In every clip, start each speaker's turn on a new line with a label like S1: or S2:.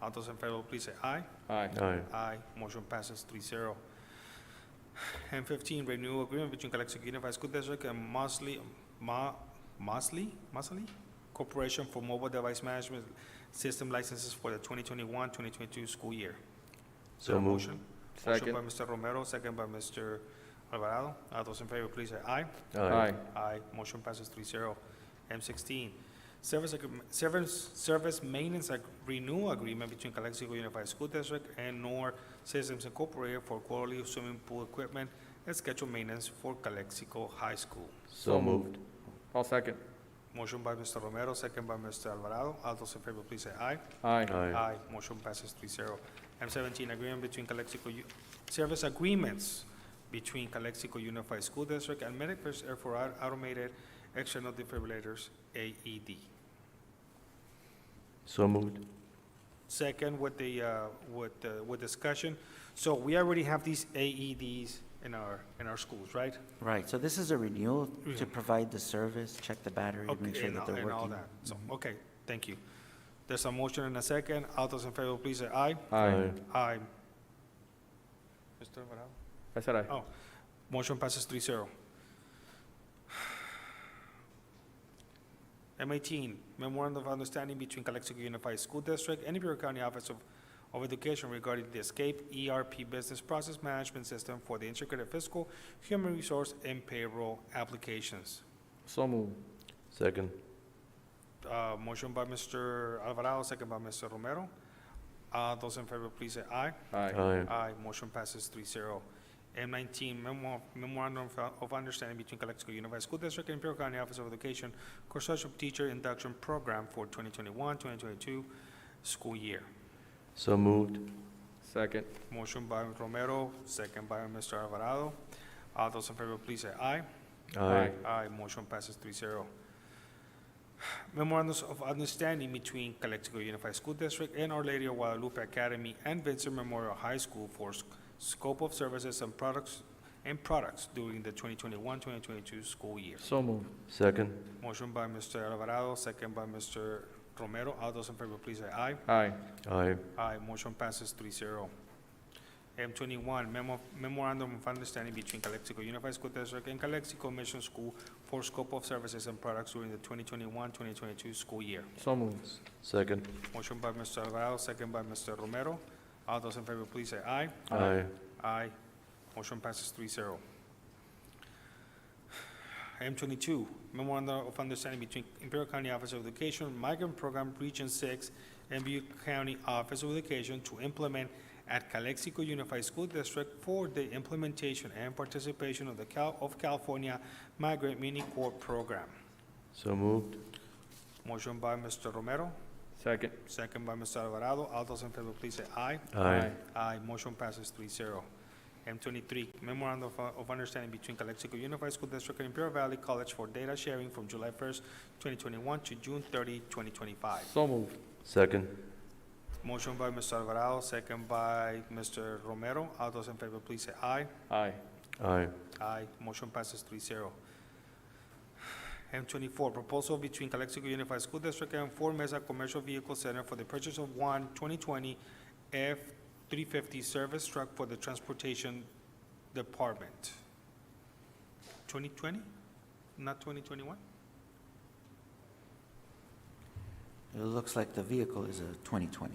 S1: All those in favor, please say aye.
S2: Aye.
S3: Aye.
S1: Aye, motion passes three zero. And fifteen, renewal agreement between Calexico Unified School District and Mosley, Ma, Mosley, Mosley Corporation for Mobile Device Management System Licenses for the 2021-2022 school year. Is there a
S3: So moved.
S1: motion?
S2: Second.
S1: Motion by Mr. Romero, second by Mr. Alvarado. All those in favor, please say aye.
S2: Aye.
S1: Aye, motion passes three zero. M sixteen, service, agree- service, service maintenance ag- renewal agreement between Calexico Unified School District and NOR Systems Incorporated for quarterly swimming pool equipment and scheduled maintenance for Calexico High School.
S3: So moved.
S2: I'll second.
S1: Motion by Mr. Romero, second by Mr. Alvarado. All those in favor, please say aye.
S2: Aye.
S3: Aye.
S1: Aye, motion passes three zero. M seventeen, agreement between Calexico, U- service agreements between Calexico Unified School District and Medicare Air for au- Automated External Defibrillators, E AED.
S3: So moved.
S1: Second, with the, uh, with, the- with discussion, so we already have these AEDs in our, in our schools, right?
S4: Right, so this is a renewal
S1: Yeah.
S4: to provide the service, check the battery, make
S1: Okay,
S4: sure
S1: and
S4: that
S1: all-
S4: they're
S1: and all
S4: working. Mm-hmm.
S1: that. So, okay, thank you. There's a motion and a second. All those in favor, please say aye.
S2: Aye.
S1: Aye. Mr. Alvarado?
S2: I said aye.
S1: Motion passes three zero. M eighteen, memorandum of understanding between Calexico Unified School District and Imperial County Office of, of Education regarding the Escape ERP Business Process Management System for the Integrated Fiscal, Human Resource, and Payroll Applications.
S2: So moved.
S3: Second.
S1: Uh, motion by Mr. Alvarado, second by Mr. Romero. Uh, those in favor, please say aye.
S2: Aye.
S3: Aye.
S1: Aye, Ah, motion passes three zero. M nineteen, memo- memorandum of- of understanding between Calexico Unified School District and Imperial County Office of Education Consortium Teacher Induction Program for 2021-2022 school year.
S3: So moved.
S2: Second.
S1: Motion by Romero, second by Mr. Alvarado. All those in favor, please say aye.
S2: Aye.
S1: Aye, motion Ah, passes three zero. Memorandums of Understanding between Calexico Unified School District and Our Lady of Guadalupe Academy and Vincent Memorial High School for s- scope of services and products and products during the 2021-2022 school year.
S2: So moved.
S3: Second.
S1: Motion by Mr. Alvarado, second by Mr. Romero. All those in favor, please say aye.
S2: Aye.
S3: Aye.
S1: Aye, motion passes three zero. M twenty-one, memo, memorandum of understanding between Calexico Unified School District and Calexico Mission School for scope of services and products during the 2021-2022 school year.
S2: So moved.
S3: Second.
S1: Motion by Mr. Alvarado, second by Mr. Romero. All those in favor, please say aye.
S3: Aye.
S1: Aye. Motion passes three zero. Item twenty-two, memorandum of understanding between Imperial County Office of Education, Migrant Program Region Six, and Butte County Office of Education to implement at Calexico Unified School District for the implementation and participation of the Cal, of California Migrant Mini Court Program.
S3: So moved.
S1: Motion by Mr. Romero,
S2: Second.
S1: second by Mr. Alvarado. All those in favor, please say aye. Aye, uh, motion passes three zero. M twenty-three, memorandum of, of understanding between Calexico Unified School District and Imperial Valley College for data sharing from July first, twenty twenty-one to June 30, 2025.
S2: So moved.
S3: Second.
S1: Motion by Mr. Alvarado, second by Mr. Romero. All those in favor, please say aye.
S2: Aye.
S3: Aye.
S1: Aye, motion passes three zero. M twenty-four, proposal between Calexico Unified School District and Ford Mesa Commercial Vehicle Center for the purchase of one 2020 F three fifty service truck for the transportation department. Twenty twenty, not twenty twenty-one?
S4: It looks like the vehicle is a 2020.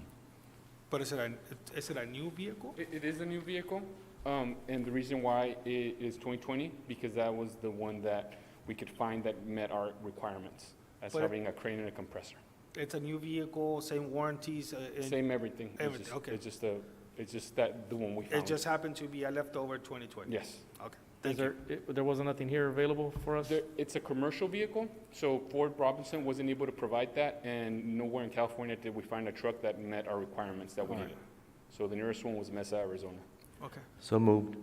S1: But is it a, is it a new vehicle?
S5: It, it is a new vehicle, um, and the reason why it is 2020, because that was the one that we could find that met our requirements as
S1: But-
S5: having a crane and a compressor.
S1: It's a new vehicle, same warranties, uh, and
S5: Same everything. It's
S1: everything,
S5: just-
S1: okay.
S5: It's just a, it's just that, the one we
S1: it
S5: found.
S1: just happened to be a leftover twenty twenty?
S5: Yes.
S1: Okay,
S2: Is
S1: thank you.
S2: there, i- there wasn't nothing here available for us?
S5: There, it's a commercial vehicle, so Ford Robinson wasn't able to provide that, and nowhere in California did we find a truck that met our requirements that we
S1: All right.
S5: needed. So the nearest one was Mesa, Arizona.
S1: Okay.
S3: So moved.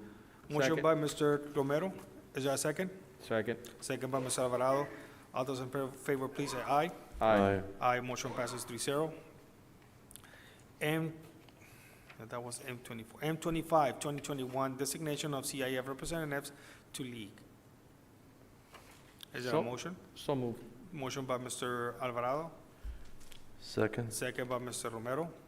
S1: Motion
S2: Second.
S1: by Mr. Romero. Is there a second?
S2: Second.
S1: Second by Mr. Alvarado. All those in fa- favor, please say aye. Aye, motion passes three zero. M, that was M twenty-four, M 25 2021 designation of CIF representatives to league. Is there a
S2: So-
S1: motion?
S2: So moved.
S1: Motion by Mr. Alvarado,
S3: Second.
S1: second by Mr. Romero.